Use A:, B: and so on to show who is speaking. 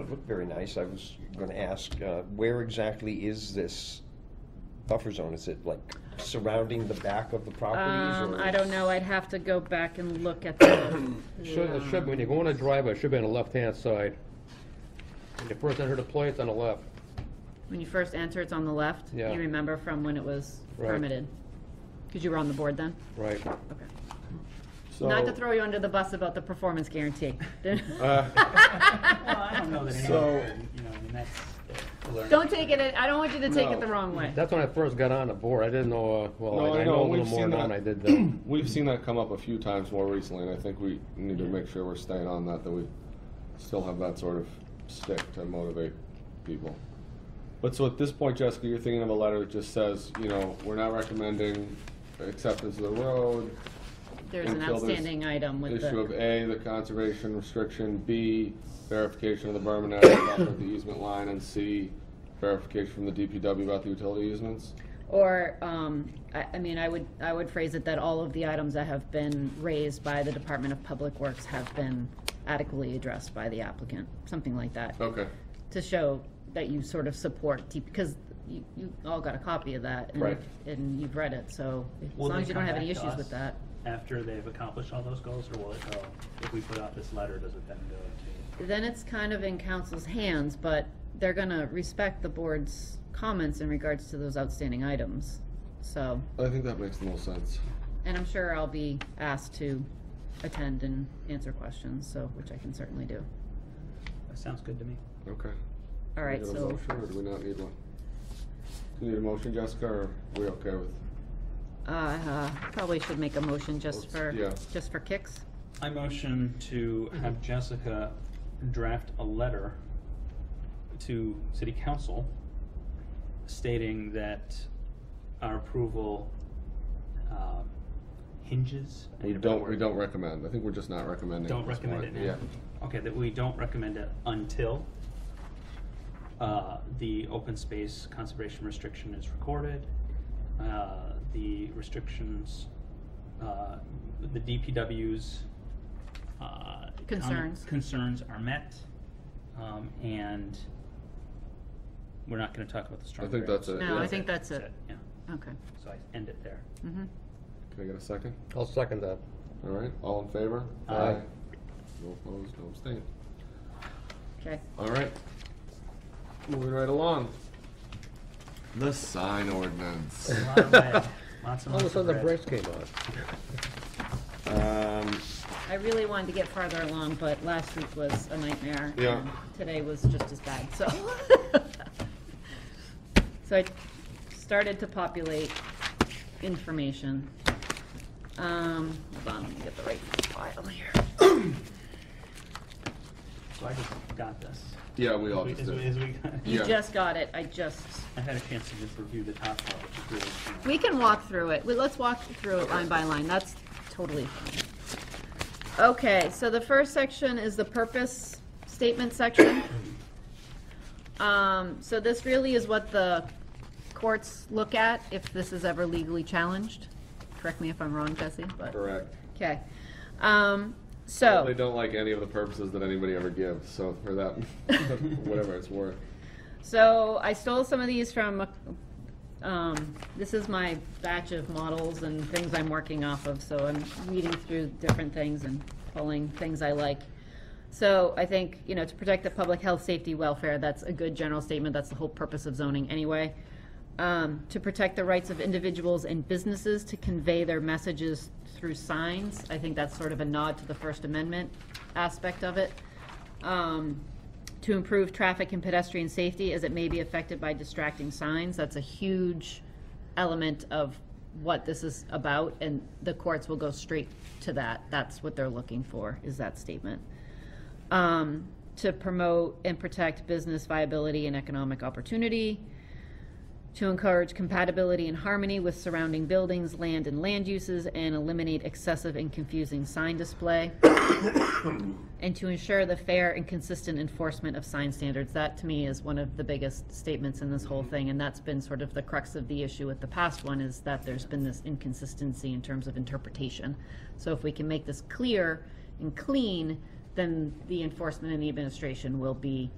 A: It looked very nice. I was going to ask, uh, where exactly is this buffer zone? Is it like surrounding the back of the properties?
B: Um,
A: or-
B: I don't know, I'd have to go back and look at the,
C: Should, it should, when you go on a driveway, it should be on the left-hand side. When you first enter the place, on the left.
B: when you first enter, it's on the left.
C: Yeah.
B: You remember from when it was
C: Right.
B: permitted? Because you were on the board then?
C: Right.
B: Okay. Not to throw you under the bus about the performance guarantee.
C: Uh, Oh,
D: Well, Oh, I don't know that
E: So-
D: anyone, you know, I mean, that's a learning.
B: Don't take it, I don't want you to take it
E: No.
B: the wrong way.
C: That's when I first got on the board. I didn't know, uh,
E: No,
C: well, I-
E: I
C: I
E: know,
C: know a
E: we've
C: little more
E: seen
C: now
E: that.
C: than I did then.
E: We've seen that come up a few times more recently, and I think we need to make sure we're staying on that, that we still have that sort of stick to motivate people. But so at this point, Jessica, you're thinking of a letter that just says, you know, we're not recommending acceptance of the road,
B: There's an
E: until there's
B: outstanding item with
E: issue of
B: the,
E: A, the conservation restriction, B, verification of the berm and area buffer at the easement line, and C, verification from the DPW about the utility easements.
B: or, um, I, I mean, I would, I would phrase it that all of the items that have been raised by the Department of Public Works have been adequately addressed by the applicant, something like that.
E: Okay,
B: to show that you sort of support, T- because you, you all got a copy of that. and-
E: Right.
B: And you've read it, so as
D: Will
B: long
D: they
B: as you don't
D: come
B: have any
D: back to
B: issues with
D: us
B: that.
D: After they've accomplished all those goals, or will it go, if we put out this letter, does it then go
B: Then it's kind of in council's hands, but they're gonna respect the board's comments in regards to those outstanding items. So,
E: I think that makes the most sense.
B: and I'm sure I'll be asked to attend and answer questions, so, which I can certainly do.
D: to, that sounds good to me.
E: Okay.
B: All right,
E: Do we need a
B: so,
E: motion, or do we not need one? Do you need a motion, Jessica, or are we okay with?
B: uh, uh, probably should make a motion just for,
E: Yeah.
B: just for kicks.
D: I motion to have Jessica draft a letter to city council stating that our approval um, hinges. I
E: We
D: need a better
E: don't, we
D: word.
E: don't recommend, I think we're just not recommending.
D: Don't
E: at this
D: recommend it
E: point.
D: now. Okay, that we don't recommend it until uh, the open space conservation restriction is recorded. uh, The restrictions, uh, the DPW's. uh, com-
B: Concerns.
D: Concerns are met, um, and we're not gonna talk about the storm.
E: I think
D: drain.
E: that's it.
B: No,
E: yeah.
B: I think that's it.
D: Uh, Yeah,
B: Okay.
D: so I end it there.
B: Mm-hmm.
E: Can I get a second?
C: I'll second that.
E: All right, all in favor?
D: Aye.
E: No opposed, no abstained.
B: Okay.
E: All right. Moving right along. The sign ordinance.
D: Lot of lead, Lots and
C: All of a
D: lots of
C: sudden, the
D: red.
C: brakes came on.
A: Um,
B: I really wanted to get farther along, but last week was a nightmare.
E: Yeah.
B: and Today was just as bad, so. So I started to populate information. Um, hold on, let me get the right file here.
D: So I just got this.
E: Yeah, we all
D: As
E: just
D: we-
E: did.
D: as we got-
B: You
E: Yeah.
B: just got it, I just,
D: I had a chance to just review the top part, which is really. you know,
B: we can walk through it. Well, Let's walk through it line by line, that's totally fine. Okay, so the first section is the purpose statement section. Um, so this really is what the courts look at if this is ever legally challenged. Correct me if I'm wrong, Jesse, but,
E: Correct.
B: okay. Um,
E: They
B: so,
E: don't like any of the purposes that anybody ever gives, so for that, whatever it's worth.
B: so I stole some of these from, um, this is my batch of models and things I'm working off of, so I'm reading through different things and pulling things I like. So I think, you know, to protect the public health, safety, welfare, that's a good general statement. That's the whole purpose of zoning anyway. Um, to protect the rights of individuals and businesses to convey their messages through signs. I think that's sort of a nod to the First Amendment aspect of it. Um, to improve traffic and pedestrian safety as it may be affected by distracting signs. That's a huge element of what this is about, and the courts will go straight to that. That's what they're looking for, is that statement um, to promote and protect business viability and economic opportunity, to encourage compatibility and harmony with surrounding buildings, land, and land uses, and eliminate excessive and confusing sign display, and to ensure the fair and consistent enforcement of sign standards. That, to me, is one of the biggest statements in this whole thing, and that's been sort of the crux of the issue with the past one, is that there's been this inconsistency in terms of interpretation. So if we can make this clear and clean, then the enforcement and the administration will be